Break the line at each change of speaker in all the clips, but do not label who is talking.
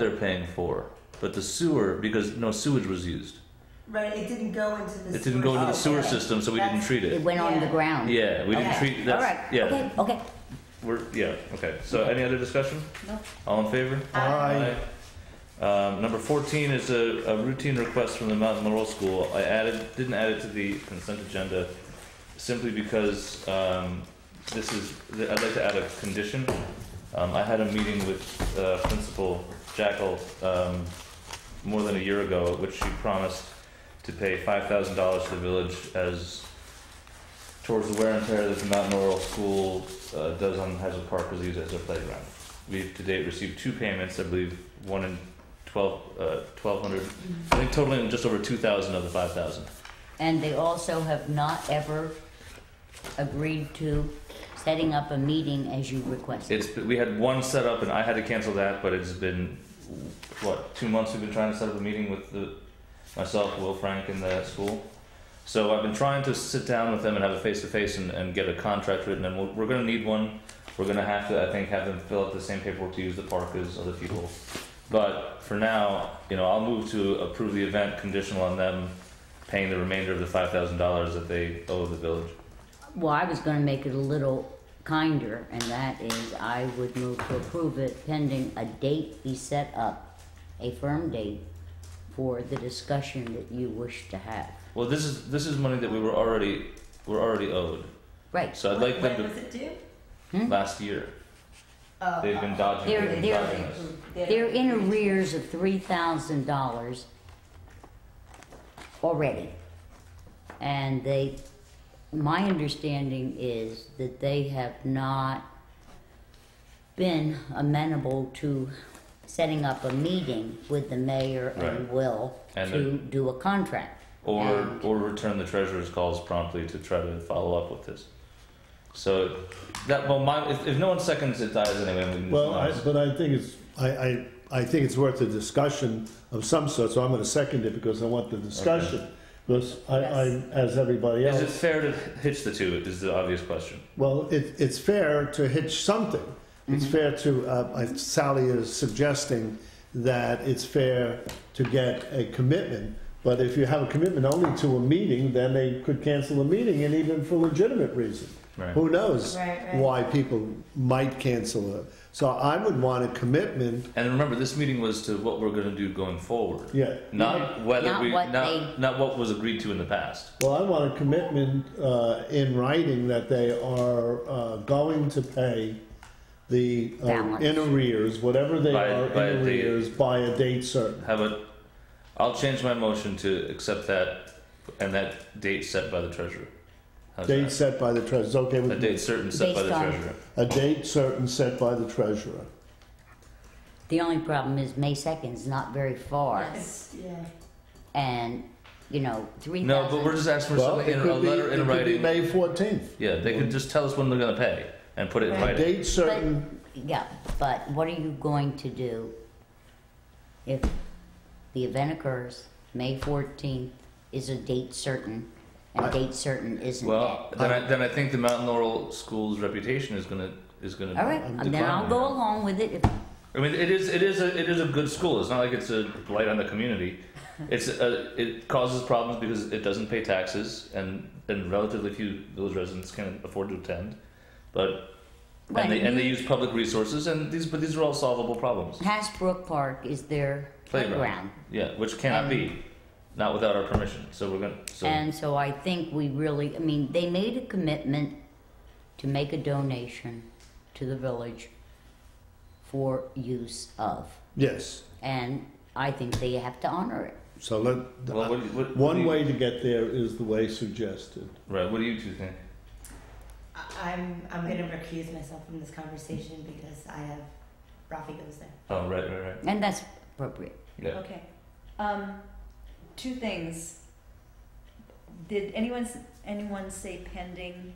they're paying for, but the sewer because no sewage was used.
Right, it didn't go into the. Oh,
It didn't go into the sewer system, so we didn't treat
It
it.
went on the
Yeah.
ground.
Yeah, we didn't treat
All
that.
right,
Yeah,
okay, okay.
we're yeah okay. So any other discussion?
No.
All in favor?
Aye.
Um, number fourteen is a, a routine request from the Mountain Laurel School. I added, didn't add it to the consent agenda simply because, um, this is, I'd like to add a condition. Um, I had a meeting with, uh, Principal Jackal, um, more than a year ago, at which she promised to pay five thousand dollars to the village as towards the wear and tear that the Mountain Laurel School, uh, does on Hazel Park because they use it as their playground. We've to date received two payments, I believe, one in twelve, uh, twelve hundred, I think totaling just over two thousand of the five thousand.
And they also have not ever agreed to setting up a meeting as you requested.
It's, we had one set up and I had to cancel that, but it's been, what, two months we've been trying to set up a meeting with the, myself, Will Frank and the school. So I've been trying to sit down with them and have a face-to-face and, and get a contract written and we're, we're gonna need one. We're gonna have to, I think, have them fill out the same paperwork to use the park as other people. But for now, you know, I'll move to approve the event conditional on them paying the remainder of the five thousand dollars that they owe the village.
Well, I was gonna make it a little kinder, and that is I would move to approve it pending a date be set up, a firm date for the discussion that you wish to have.
Well, this is, this is money that we were already, we're already owed.
Right,
So I'd like them to.
When was it due?
Hmm?
last year.
Oh,
They've been dodging,
They're-
they've been
they're-
dodging us.
they're in arrears of three thousand dollars already. And they, my understanding is that they have not been amenable to setting up a meeting with the mayor and
Right.
Will
And
to
the-
do a contract.
Or,
And-
or return the treasurer's calls promptly to try to follow up with this. So, that, well, my, if, if no one seconds, it dies anyway, and we can.
Well, I, but I think it's, I, I, I think it's worth a discussion of some sort, so I'm gonna second it because I want the discussion. Because I, I'm, as everybody
Is it
else,
fair to hitch the two, is the obvious question.
well, it, it's fair to hitch something. It's
Mm-hmm.
fair to, uh, I- Sally is suggesting that it's fair to get a commitment. But if you have a commitment only to a meeting, then they could cancel the meeting and even for legitimate reason.
Right.
Who knows
Right, right.
why people might cancel it. So I would want a commitment
And remember, this meeting was to what we're gonna do going forward.
Yeah,
Not whether
Not
we,
what
not,
they-
not what was agreed to in the past.
well, I want a commitment uh, in writing that they are uh, going to pay the uh,
Balance.
in arrears, whatever they
By-
are
by
in
a date.
arrears, by a date certain.
Have a, I'll change my motion to accept that, and that date set by the treasurer. How's
Date
that?
set by the treasurer. Okay,
A
with
date certain set by the
Based on-
treasurer.
a date certain set by the treasurer.
The only problem is May second's not very far,
Yes, yeah.
and, you know, three
No,
thousand.
but we're just asking for
Well,
something
it
in a
could be,
letter in
it could be
writing.
May fourteenth.
Yeah, they could just tell us when they're gonna pay and put it in
Right.
A
writing.
date certain.
Yeah, but what are you going to do if the event occurs, May fourteenth is a date certain, and date certain isn't
Well,
that?
then I, then I think the Mountain Laurel School's reputation is gonna, is gonna
All right, and then I'll
decline.
go along with it if,
I mean, it is, it is, a it is a good school, it's not like it's a blight on the community. It's, a- it causes problems because it doesn't pay taxes and, and relatively few village residents can afford to attend. But,
Right.
and they, and they use public resources and these, but these are all solvable problems.
Hasbrook Park is their playground.
Yeah, which cannot be, not without our permission, so we're gonna, so.
And so I think we really, I mean, they made a commitment to make a donation to the village for use of,
Yes.
and I think they have to honor it.
So let
Well, what do you- what- what do
one
you-
way to get there is the way suggested.
Right. What do you two think?
I- I'm, I'm gonna recuse myself from this conversation because I have, Rafi goes there.
Oh, right, right, right.
And that's appropriate.
Yeah.
Okay. Um, two things. Did anyone, s- anyone say pending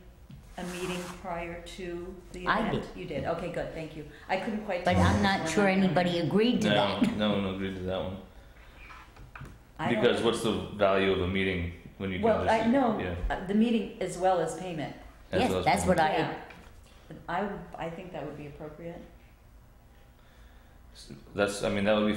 a meeting prior to the event?
I
You did, okay, good, thank you. I couldn't quite.
But I'm not sure anybody agreed to
No,
that.
no one agreed to that one.
I don't-
Because what's the value of a meeting when you
Well,
can just
I know,
yeah.
uh, the meeting as well as payment.
as
Yes,
well as
that's
one.
what I-
Yeah. I, would- I think that would be appropriate.
That's I mean that would be